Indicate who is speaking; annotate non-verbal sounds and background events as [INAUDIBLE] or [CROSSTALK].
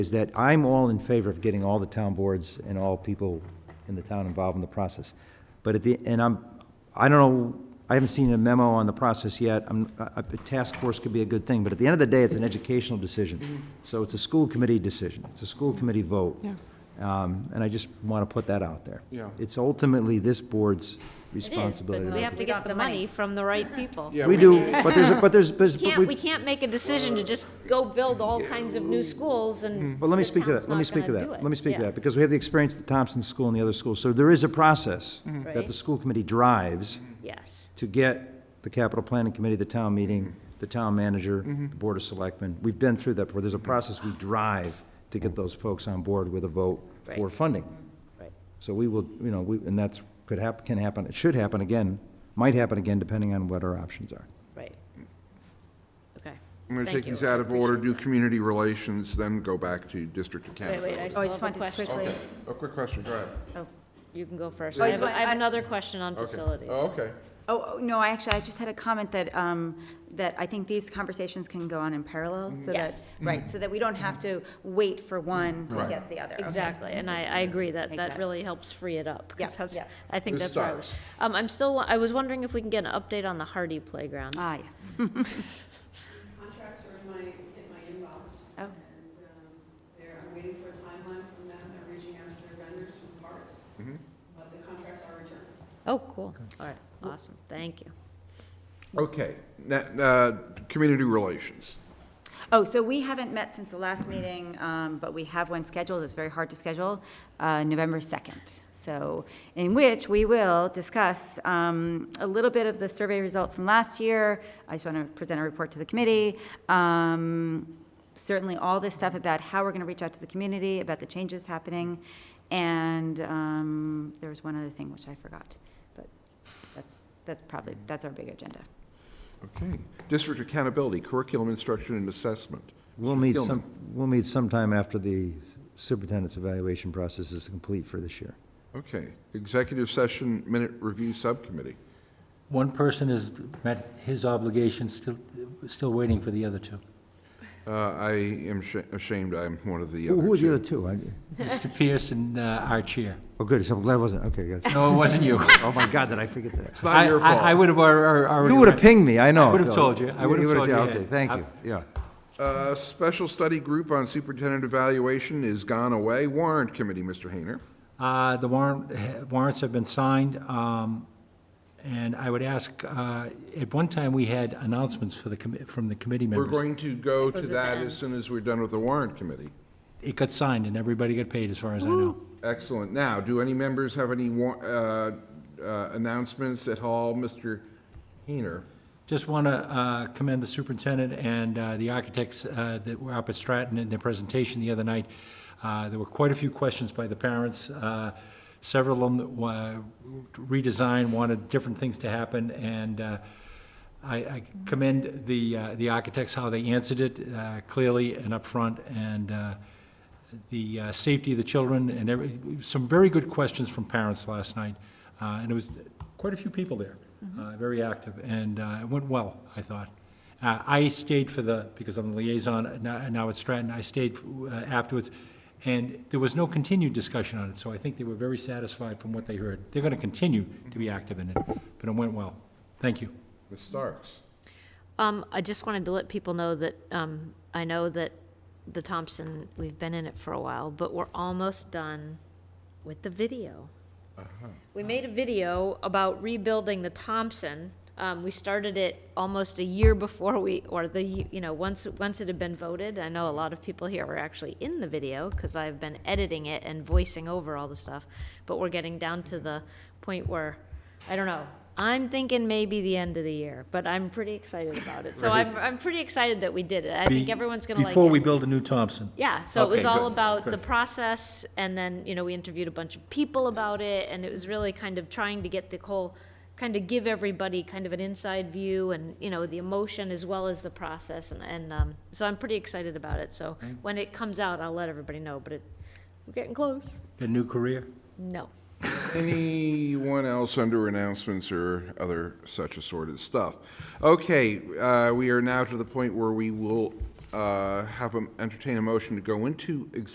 Speaker 1: is that I'm all in favor of getting all the town boards and all people in the town involved in the process. But at the, and I'm, I don't know, I haven't seen a memo on the process yet. I'm, a, a task force could be a good thing, but at the end of the day, it's an educational decision. So it's a school committee decision. It's a school committee vote.
Speaker 2: Yeah.
Speaker 1: Um, and I just want to put that out there.
Speaker 3: Yeah.
Speaker 1: It's ultimately this board's responsibility.
Speaker 4: It is, but we have to get the money from the right people.
Speaker 3: Yeah,
Speaker 1: We do, but there's, a- but
Speaker 4: [LAUGHS]
Speaker 1: there's, there's. but
Speaker 4: Can't, we can't make a decision to just go build all kinds of new schools and.
Speaker 1: Well, Mm. let me
Speaker 4: the
Speaker 1: speak to
Speaker 4: town's
Speaker 1: that, let me
Speaker 4: not
Speaker 1: speak to
Speaker 4: gonna
Speaker 1: that,
Speaker 4: do it.
Speaker 1: let me speak to
Speaker 4: Yeah.
Speaker 1: that, because we have the experience at the Thompson School and the other schools, so there is a process that the
Speaker 4: Right.
Speaker 1: school committee drives
Speaker 4: Yes,
Speaker 1: to get the capital planning committee, the town meeting,
Speaker 4: Mm-hmm.
Speaker 1: the town manager, the board of selectmen, we've been through that before, there's a
Speaker 4: Mm-hmm.
Speaker 1: process we drive to get those folks on board with a vote for
Speaker 4: Right.
Speaker 1: funding.
Speaker 4: right.
Speaker 1: So we will, you know, we, and that's, could hap, can happen, it should happen again, might happen again, depending on what our options are.
Speaker 4: Right. Okay.
Speaker 3: I'm going to
Speaker 4: Thank
Speaker 3: take
Speaker 4: you.
Speaker 3: these out of order, do community relations, then go back to district
Speaker 4: Wait,
Speaker 3: accounting.
Speaker 4: wait, I
Speaker 2: Oh, I
Speaker 4: still
Speaker 2: just
Speaker 4: have a
Speaker 2: wanted to
Speaker 4: question.
Speaker 2: quickly,
Speaker 3: A quick question, go ahead.
Speaker 4: Oh, You can go first.
Speaker 2: Oh,
Speaker 4: I
Speaker 2: I
Speaker 4: have,
Speaker 2: just
Speaker 4: I
Speaker 2: want-
Speaker 4: have
Speaker 2: I-
Speaker 4: another question on
Speaker 3: Okay.
Speaker 4: facilities.
Speaker 3: Oh, okay.
Speaker 2: oh, oh, no, I actually, I just had a comment that, um, that I think these conversations can go on in parallel, so that,
Speaker 4: Yes.
Speaker 2: right, so that we don't have to wait for one to
Speaker 3: Right.
Speaker 2: get the other. Okay.
Speaker 4: Exactly, and I, I agree that,
Speaker 2: Make
Speaker 4: that
Speaker 2: that.
Speaker 4: really helps free it up. 'cause
Speaker 2: Yeah,
Speaker 4: that's-
Speaker 2: yeah.
Speaker 4: I think
Speaker 3: Who's
Speaker 4: that's where I
Speaker 3: starts?
Speaker 4: was. Um, I'm still, I was wondering if we can get an update on the Hardy Playground.
Speaker 2: Ah, yes. [LAUGHS]
Speaker 5: Contracts are in my, in my inbox.
Speaker 2: Oh.
Speaker 5: And um, they're, I'm waiting for a timeline from them, they're reaching out to their vendors for parts. But the contracts are returned.
Speaker 4: Oh, cool, all right, awesome, thank you.
Speaker 3: Okay, that, uh, community relations.
Speaker 2: Oh, so we haven't met since the last meeting, um, but we have one scheduled, it's very hard to schedule, uh, November 2nd. So, in which we will discuss um, a little bit of the survey result from last year. I just want to present a report to the committee. Um, Certainly, all this stuff about how we're going to reach out to the community, about the changes happening. And um, there was one other thing which I forgot, but that's, that's probably, that's our big agenda.
Speaker 3: Okay. District accountability, curriculum instruction and assessment.
Speaker 1: We'll meet
Speaker 3: Gilman.
Speaker 1: some, we'll meet sometime after the superintendent's evaluation process is complete for this year.
Speaker 3: Okay. Executive session minute review subcommittee.
Speaker 6: One person has met his obligations, still, still waiting for the other two.
Speaker 3: Uh, I am sh- ashamed I'm one of the
Speaker 1: Who-
Speaker 3: other
Speaker 1: Who were the
Speaker 3: two.
Speaker 1: other two? I-
Speaker 6: Mr. Pierce and uh, our chair.
Speaker 1: Oh, good, so I'm glad it wasn't, okay, good.
Speaker 6: No, it
Speaker 3: [LAUGHS]
Speaker 6: wasn't you.
Speaker 1: Oh, my God, did I forget that?
Speaker 3: It's not your
Speaker 6: I- I- I
Speaker 3: fault.
Speaker 6: would have already.
Speaker 1: You would have pinged me, I know.
Speaker 6: I would've
Speaker 1: Bill.
Speaker 6: told you. I would've
Speaker 1: would've-
Speaker 6: told you,
Speaker 1: yeah,
Speaker 6: yeah.
Speaker 1: Okay, thank you,
Speaker 6: I'm-
Speaker 1: yeah.
Speaker 3: Uh, Special study group on superintendent evaluation is gone away. Warrant committee, Mr. Hayner.
Speaker 6: Uh, The warrant, warrants have been signed, um, and I would ask, uh, at one time, we had announcements for the, commi- from the committee
Speaker 3: We're
Speaker 6: members.
Speaker 3: going to go to
Speaker 4: Those are the
Speaker 3: that as
Speaker 4: ends.
Speaker 3: soon as we're done with the warrant committee.
Speaker 6: It got signed, and everybody got paid, as far as I know.
Speaker 3: Excellent. Now, do any members have any wa- uh, uh, announcements at all? Mr. Heener?
Speaker 6: Just want to uh, commend the superintendent and uh, the architects uh, that were up at Stratton in their presentation the other night. Uh, There were quite a few questions by the parents. Uh, Several of them wa- redesigned, wanted different things to happen, and uh, I I commend the uh, the architects, how they answered it uh, clearly and upfront, and uh, the uh, safety of the children, and every, some very good questions from parents last night. Uh, And it was quite a few people there,
Speaker 4: Mm-hmm.
Speaker 6: uh, very active, and uh, it went well, I thought. Uh, I stayed for the, because I'm the liaison now now at Stratton, I stayed uh, afterwards, and there was no continued discussion on it, so I think they were very satisfied from what they heard. They're going to continue to be active in it, but it went well. Thank you.
Speaker 3: Ms. Starks?
Speaker 4: Um, I just wanted to let people know that, um, I know that the Thompson, we've been in it for a while, but we're almost done with the video.
Speaker 6: Uh-huh.
Speaker 4: We made a video about rebuilding the Thompson. Um, we started it almost a year before we, or the, you know, once, once it had been voted. I know a lot of people here were actually in the video because I've been editing it and voicing over all the stuff. But we're getting down to the point where, I don't know. I'm thinking maybe the end of the year, but I'm pretty excited about it. So I'm, I'm pretty excited that we did it. I think everyone's gonna like it.
Speaker 6: Before we build a new Thompson.
Speaker 4: Yeah, so it was
Speaker 3: Okay,
Speaker 4: all
Speaker 3: good,
Speaker 4: about the
Speaker 3: good.
Speaker 4: process, and then, you know, we interviewed a bunch of people about it, and it was really kind of trying to get the whole, kind of give everybody kind of an inside view and, you know, the emotion as well as the process, and, and, um, so I'm pretty excited about it, so
Speaker 3: Mm.
Speaker 4: when it comes out, I'll let everybody know, but it, we're getting close.
Speaker 6: A new career.
Speaker 4: No.
Speaker 3: Anyone else under announcements or other such assorted stuff? Okay, uh, we are now to the point where we will uh, have, a- entertain a motion to go into executive